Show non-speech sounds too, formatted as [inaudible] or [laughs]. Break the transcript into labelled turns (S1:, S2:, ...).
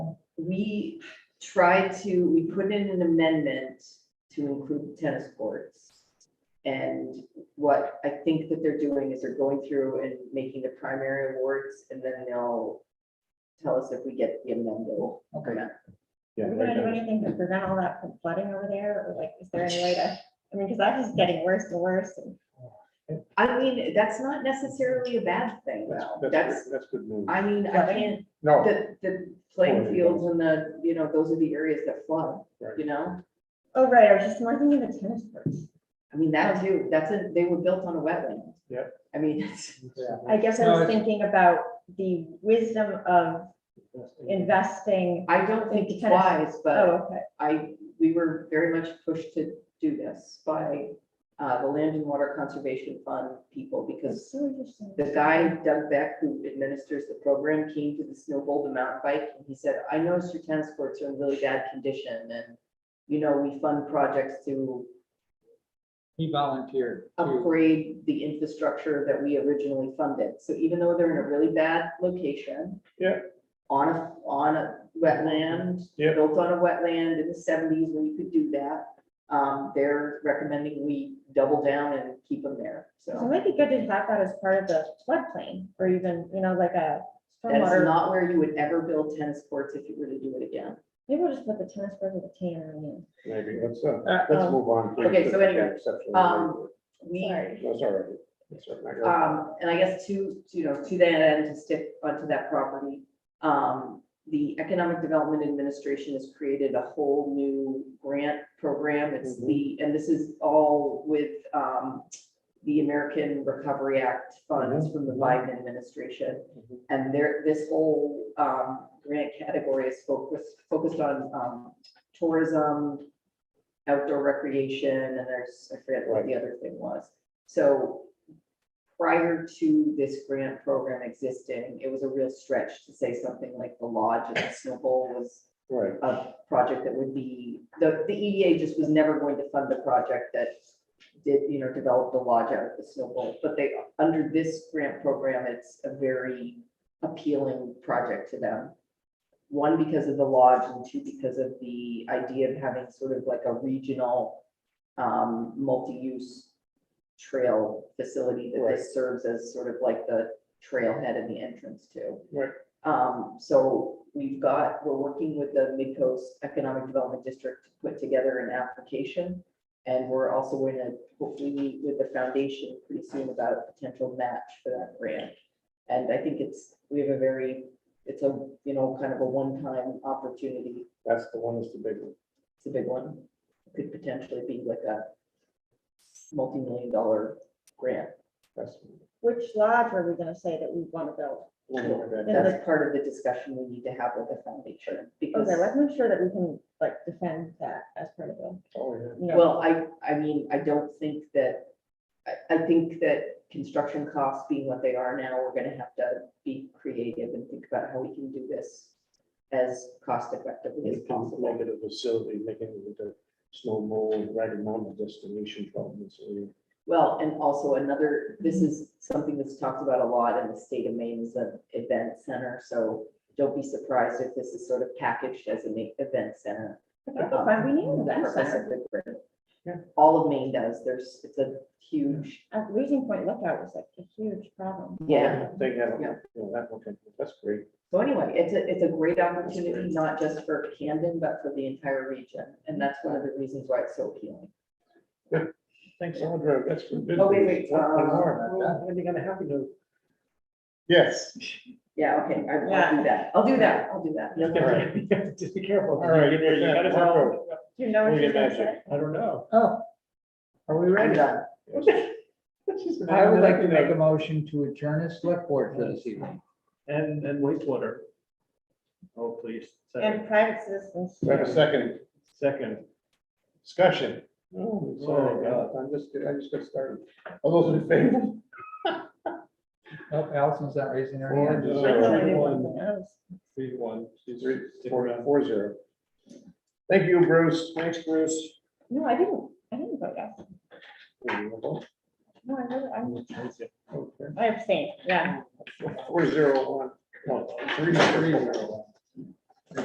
S1: we tried to, we put in an amendment to include tennis courts. And what I think that they're doing is they're going through and making the primary awards and then they'll tell us if we get the amendment.
S2: Okay.
S3: Yeah,
S4: Are we
S3: right
S4: gonna do
S3: now.
S4: anything to prevent all that from flooding over there, or like, is there any way to, I mean, because that's just getting worse and worse, and
S1: I mean, that's not necessarily a bad thing though.
S3: That's-
S1: That's,
S3: That's, that's good news.
S1: I mean, I
S4: Flooding?
S1: can't,
S2: No,
S1: the, the playing
S3: Flooding.
S1: fields and the, you know, those are the areas that flood,
S3: Right.
S1: you know?
S4: oh, right, I was just more thinking of the tennis courts.
S1: I mean, that too, that's a, they were built on a wetland.
S3: Yep.
S1: I mean, [laughs] it's-
S4: I guess I
S2: No,
S4: was
S2: it's-
S4: thinking about the wisdom of investing,
S1: I don't think it's
S4: Kind of-
S1: wise, but
S4: oh, okay,
S1: I, we were very much pushed to do this by uh, the Land and Water Conservation Fund people, because
S4: that's so interesting.
S1: the guy, Doug Beck, who administers the program, came to the Snowball to mountain bike, and he said, I noticed your tennis courts are in really bad condition, and, you know, we fund projects to
S2: he volunteered. to-
S3: Mm.
S1: upgrade the infrastructure that we originally funded. So even though they're in a really bad location.
S3: Yeah.
S1: On a, on a wetland.
S3: Yeah.
S1: Built on a wetland in the seventies when you could do that. Um, they're recommending we double down and keep them there.
S4: So
S1: So
S4: it might be good to have that as part of the floodplain, or even, you know, like a
S1: that's
S4: stormwater,
S1: not where you would ever build tennis courts if you were to do it again.
S4: maybe we'll just put the tennis courts with the tanner in.
S3: Maybe, let's, uh,
S2: Uh,
S3: let's
S4: um,
S3: move on. please,
S1: okay,
S3: to
S1: so
S3: the
S1: anyway,
S3: exception.
S1: um, We
S4: Sorry.
S3: That's all right. That's all right. I got it.
S1: Um, and I guess to, to, you know, to that end, to stick onto that property, um, the Economic Development Administration has created a whole new grant program. It's
S3: Mhm.
S1: the, and this is all with, um, the American Recovery Act funds
S3: Mm-hmm.
S1: from the Biden administration.
S3: Mhm.
S1: And there, this whole, um, grant category is focused, focused on, um, tourism, outdoor recreation, and there's, I forget what the other thing was. So prior to this grant program existing, it was a real stretch to say something like the lodge and the snow bowl was
S3: Right,
S1: a project that would be, the, the EDA just was never going to fund the project that did, you know, develop the lodge out of the snow bowl. But they, under this grant program, it's a very appealing project to them. One, because of the lodge, and two, because of the idea of having sort of like a regional, um, multi-use trail facility that
S3: Right.
S1: this serves as sort of like the trailhead and the entrance to.
S3: Right.
S1: Um, so we've got, we're working with the Midcoast Economic Development District to put together an application. And we're also going to hopefully meet with the foundation pretty soon about a potential match for that grant. And I think it's, we have a very, it's a, you know, kind of a one-time opportunity.
S3: that's the one that's the big one.
S1: It's a big one. Could potentially be like a multi-million dollar grant.
S3: That's.
S4: Which lodge were we gonna say that we want to build?
S3: we'll look at that.
S4: Yeah.
S1: That's part of the discussion we need to have with the foundation because.
S4: Okay, let's make sure that we can like defend that as part of the,
S3: Oh, yeah.
S4: you know.
S1: Well, I, I mean, I don't think that, I, I think that construction costs being what they are now, we're gonna have to be creative and think about how we can do this as cost effectively as
S3: We can
S1: possible.
S3: Make it a facility, making it into snowball, Ragged Mountain destination problems.
S1: Well, and also another, this is something that's talked about a lot in the state of Maine is an event center, so don't be surprised if this is sort of packaged as an e- event center. Um,
S4: I think that we need an event
S1: Purpose of
S4: center.
S1: the grant.
S3: Yeah.
S1: All of Maine does, there's, it's a huge,
S4: Uh, Losing Point Lookout was like a huge problem.
S1: yeah.
S3: They have,
S1: Yeah.
S3: you know, applicant, that's great.
S1: So anyway, it's a, it's a great opportunity, not just for Camden, but for the entire region. And that's one of the reasons why it's so appealing.
S3: Thanks, Audra, that's for good.
S1: Oh, wait,
S3: news.
S1: wait,
S3: What- what
S1: um,
S3: more about that? When are you gonna have to? Yes.
S1: Yeah, okay, I will do that. I'll do that. I'll do that.
S5: All [laughs] right. Just be careful.
S3: All right,
S5: You got us all-
S4: Do you know what
S3: Maybe
S4: you're gonna
S3: magic.
S4: say?
S5: I don't know. Oh. Are we
S1: I'm
S5: ready?
S1: done.
S5: She's
S2: I would like to
S5: been-
S2: make a motion to adjourn this select board for this evening.
S5: And, and wastewater. Oh, please. Second.
S4: And private citizens.
S3: We have a second
S5: Second.
S3: discussion. Oh,
S5: sorry, God.
S3: I'm just, I just got started. All those in favor?
S2: Nope, Oh, Allison's not raising her
S3: Or
S2: hand.
S3: just-
S4: I thought I knew
S5: Everyone.
S4: something else.
S5: Three, one. She's
S3: Three,
S5: sticking
S3: four,
S5: around.
S3: four zero. Thank you, Bruce. Thanks, Bruce.
S4: No, I didn't, I didn't vote yes.
S3: Okay.
S4: No, I really, I'm, I abstained, yeah.
S3: Four zero one, one, three, three zero one.